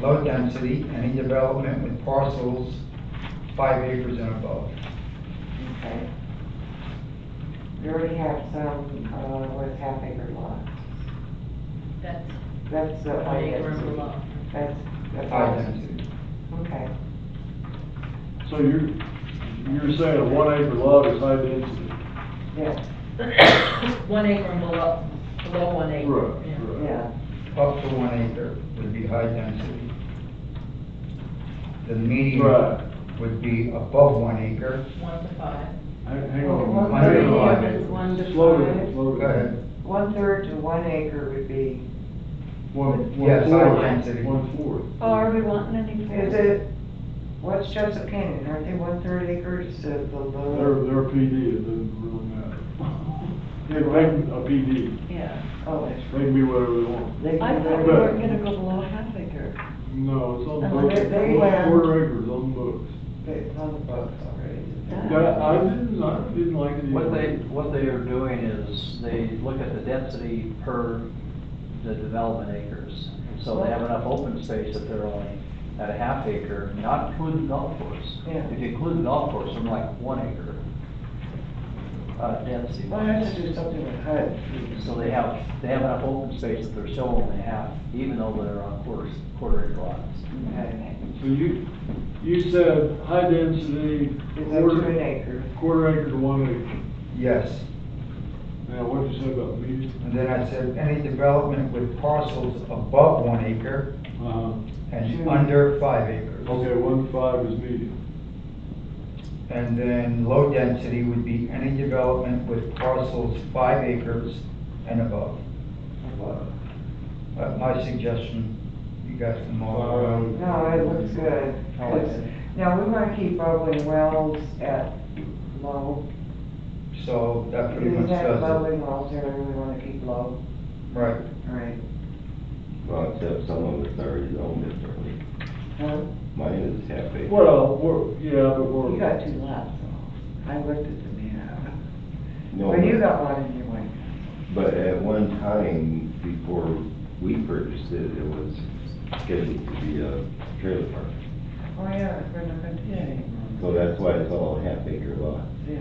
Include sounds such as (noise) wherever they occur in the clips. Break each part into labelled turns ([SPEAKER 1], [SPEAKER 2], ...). [SPEAKER 1] low density, any development with parcels five acres and above.
[SPEAKER 2] Okay. We already have some, uh, what's half acre lot.
[SPEAKER 3] That's
[SPEAKER 2] That's the
[SPEAKER 3] one
[SPEAKER 2] high
[SPEAKER 3] acre and
[SPEAKER 2] density.
[SPEAKER 3] below.
[SPEAKER 2] That's, that's.
[SPEAKER 1] High density,
[SPEAKER 2] Okay.
[SPEAKER 4] So you're, you're saying a one acre lot is high density?
[SPEAKER 2] Yeah,
[SPEAKER 3] One acre and below, below one acre.
[SPEAKER 4] Right,
[SPEAKER 3] yeah.
[SPEAKER 4] right.
[SPEAKER 2] yeah.
[SPEAKER 1] up to one acre would be high density. The median
[SPEAKER 4] Right.
[SPEAKER 1] would be above one acre.
[SPEAKER 3] One to five.
[SPEAKER 4] Hang hang on.
[SPEAKER 1] One acre
[SPEAKER 4] Hang on.
[SPEAKER 1] lot is
[SPEAKER 2] one to
[SPEAKER 4] Slow
[SPEAKER 2] five.
[SPEAKER 4] down, slow
[SPEAKER 1] Go ahead.
[SPEAKER 4] down.
[SPEAKER 2] One third to one acre would be,
[SPEAKER 4] One,
[SPEAKER 1] Yes,
[SPEAKER 4] one
[SPEAKER 1] high
[SPEAKER 4] fourth,
[SPEAKER 1] density.
[SPEAKER 4] one fourth.
[SPEAKER 5] Oh, are we wanting any
[SPEAKER 2] is
[SPEAKER 5] further?
[SPEAKER 2] it, what's Joseph Canyon, aren't they one third acres to the
[SPEAKER 4] Their,
[SPEAKER 2] low?
[SPEAKER 4] their PD, it doesn't really matter. (laughs) They can make a PD,
[SPEAKER 5] Yeah.
[SPEAKER 2] Oh, that's.
[SPEAKER 4] they can be whatever they want.
[SPEAKER 2] They
[SPEAKER 5] I
[SPEAKER 2] can
[SPEAKER 5] thought we
[SPEAKER 2] do
[SPEAKER 5] weren't gonna go below half acre.
[SPEAKER 4] No, it's on the
[SPEAKER 5] And
[SPEAKER 4] books,
[SPEAKER 2] they- they
[SPEAKER 4] one
[SPEAKER 2] have-
[SPEAKER 4] quarter acres on the books.
[SPEAKER 2] it, it's on the books already.
[SPEAKER 5] That-
[SPEAKER 4] That, I didn't, I didn't like it either.
[SPEAKER 6] What they, what they are doing is they look at the density per the development acres. So they have enough open space that they're only at a half acre, not including golf course.
[SPEAKER 2] Yeah.
[SPEAKER 6] If you include the golf course, I'm like one acre, uh, density
[SPEAKER 2] Why don't
[SPEAKER 6] wise.
[SPEAKER 2] you do something with HUD?
[SPEAKER 6] So they have, they have enough open space that they're still only half, even though they're on quarter, quarter acre lots.
[SPEAKER 2] Okay.
[SPEAKER 4] So you, you said high density,
[SPEAKER 2] It's up to an
[SPEAKER 4] quarter,
[SPEAKER 2] acre.
[SPEAKER 4] quarter acre to one acre.
[SPEAKER 1] Yes,
[SPEAKER 4] Now, what'd you say about median?
[SPEAKER 1] and then I said, any development with parcels above one acre
[SPEAKER 4] Uh,
[SPEAKER 1] and
[SPEAKER 2] Sure.
[SPEAKER 1] under five acres.
[SPEAKER 4] okay, one to five is median.
[SPEAKER 1] And then low density would be any development with parcels five acres and above. Uh, My suggestion, you guys can mull it around.
[SPEAKER 2] No, it looks good.
[SPEAKER 1] I like it.
[SPEAKER 2] Now, we wanna keep bubbling wells at low.
[SPEAKER 1] So that pretty
[SPEAKER 2] We
[SPEAKER 1] much
[SPEAKER 2] have
[SPEAKER 1] does it.
[SPEAKER 2] bubbling wells there, we wanna keep low.
[SPEAKER 1] Right.
[SPEAKER 2] Right.
[SPEAKER 7] Well, except some of it's already zoned differently.
[SPEAKER 2] Huh?
[SPEAKER 7] Mine is half acre.
[SPEAKER 4] Well, we're, yeah, but
[SPEAKER 2] You
[SPEAKER 4] we're,
[SPEAKER 2] got two lots, though. I looked at the map.
[SPEAKER 7] No,
[SPEAKER 2] Well, you got one in your way.
[SPEAKER 7] But at one time, before we purchased it, it was scheduled to be a trailer park.
[SPEAKER 2] Oh, yeah, we're not gonna do that anymore.
[SPEAKER 7] So that's why it's all half acre lot.
[SPEAKER 2] Yeah.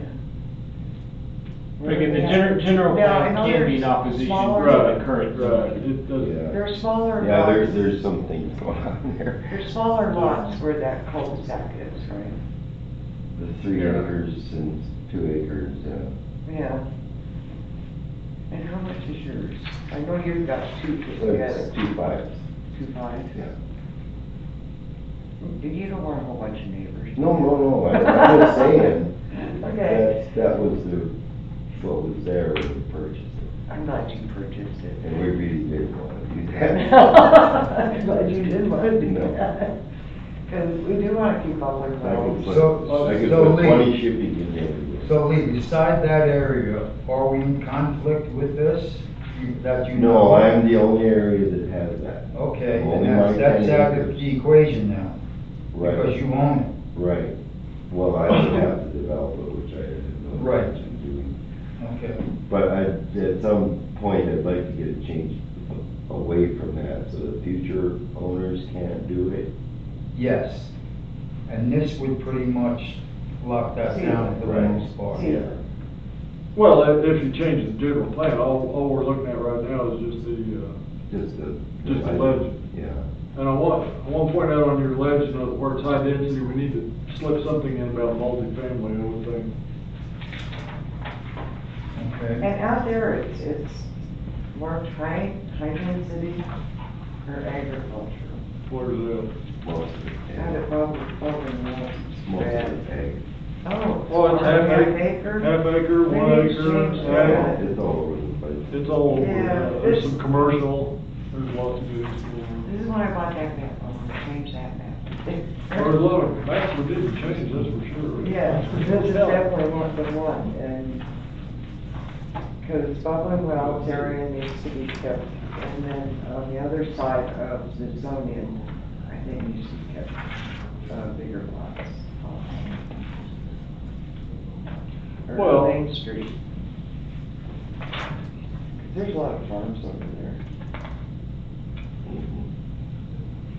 [SPEAKER 8] Like in the general, general
[SPEAKER 2] Now,
[SPEAKER 8] plan
[SPEAKER 2] I know
[SPEAKER 8] can be
[SPEAKER 2] there's
[SPEAKER 8] in opposition
[SPEAKER 2] smaller-
[SPEAKER 8] to
[SPEAKER 4] right,
[SPEAKER 8] the current.
[SPEAKER 4] right, it doesn't.
[SPEAKER 7] Yeah,
[SPEAKER 2] They're smaller
[SPEAKER 7] yeah, there's,
[SPEAKER 2] lots,
[SPEAKER 7] there's some things (laughs) going on there.
[SPEAKER 2] they're smaller lots where that cul-de-sac is, right?
[SPEAKER 7] The three
[SPEAKER 8] Yeah.
[SPEAKER 7] acres and two acres, uh, yeah.
[SPEAKER 2] Yeah. And how much is yours? I know you've got two put together,
[SPEAKER 7] It's two fives,
[SPEAKER 2] two five.
[SPEAKER 7] yeah.
[SPEAKER 2] You don't want a whole bunch of neighbors.
[SPEAKER 7] No, no, no, I- I'm just saying.
[SPEAKER 2] (laughs) Okay.
[SPEAKER 7] That's, that was the, what was there when we purchased it,
[SPEAKER 2] I'm glad you purchased
[SPEAKER 7] and we
[SPEAKER 2] it.
[SPEAKER 7] really didn't want to do
[SPEAKER 2] (laughs)
[SPEAKER 7] that.
[SPEAKER 2] I'm glad you did want to do
[SPEAKER 7] No.
[SPEAKER 2] that. Cause we do wanna keep all our
[SPEAKER 7] I could
[SPEAKER 2] wells.
[SPEAKER 1] So-
[SPEAKER 7] put, I could
[SPEAKER 1] so
[SPEAKER 7] put
[SPEAKER 1] Lee-
[SPEAKER 7] twenty shipping in there.
[SPEAKER 1] So Lee, beside that area, are we in conflict with this? You- That you know?
[SPEAKER 7] No, I'm the only area that has that.
[SPEAKER 1] Okay,
[SPEAKER 7] Only
[SPEAKER 1] and that's,
[SPEAKER 7] my
[SPEAKER 1] that's out
[SPEAKER 7] tenant.
[SPEAKER 1] of the equation now, because
[SPEAKER 7] Right,
[SPEAKER 1] you own
[SPEAKER 7] right. Well, I would have to develop it, which I have no
[SPEAKER 1] Right.
[SPEAKER 7] intention of doing.
[SPEAKER 1] it. Okay.
[SPEAKER 7] But I, at some point, I'd like to get it changed away from that, so that future owners can't do it.
[SPEAKER 1] Yes. And this would pretty much lock that down for the
[SPEAKER 7] Right.
[SPEAKER 1] most part.
[SPEAKER 2] Yeah.
[SPEAKER 4] Well, if- if you change the general plan, all, all we're looking at right now is just the, uh,
[SPEAKER 7] Just the.
[SPEAKER 4] Just the legend.
[SPEAKER 7] Yeah.
[SPEAKER 4] and I want, I want to point out on your legend of the words high density, we need to slip something in about multifamily, I would think.
[SPEAKER 1] Okay.
[SPEAKER 2] And out there, it's, it's marked high, high density or agriculture.
[SPEAKER 4] Where's that?
[SPEAKER 7] Most of it,
[SPEAKER 2] Out
[SPEAKER 7] yeah.
[SPEAKER 2] of public, public wells.
[SPEAKER 7] Most of it, ag.
[SPEAKER 2] Oh.
[SPEAKER 4] Oh, it's half acre,
[SPEAKER 2] acre?
[SPEAKER 4] half acre, one
[SPEAKER 2] Maybe it's
[SPEAKER 4] acre,
[SPEAKER 2] changed.
[SPEAKER 4] ag.
[SPEAKER 7] It's all over the place.
[SPEAKER 4] It's all, over.
[SPEAKER 2] Yeah,
[SPEAKER 4] Uh, there's
[SPEAKER 2] it's-
[SPEAKER 4] some commercial, there's lots of good.
[SPEAKER 2] This is when I bought that map, I want to change that map.
[SPEAKER 4] There's a lot of, that's, we didn't change, that's for sure.
[SPEAKER 2] Yes, this is definitely one for one, and, because it's bubbling wells area needs to be kept, and then on the other side of the zoning, I think needs to be kept, uh, bigger lots. Or
[SPEAKER 4] Well-
[SPEAKER 2] Main Street. 'Cause There's a lot of farms over there.
[SPEAKER 7] Mhm.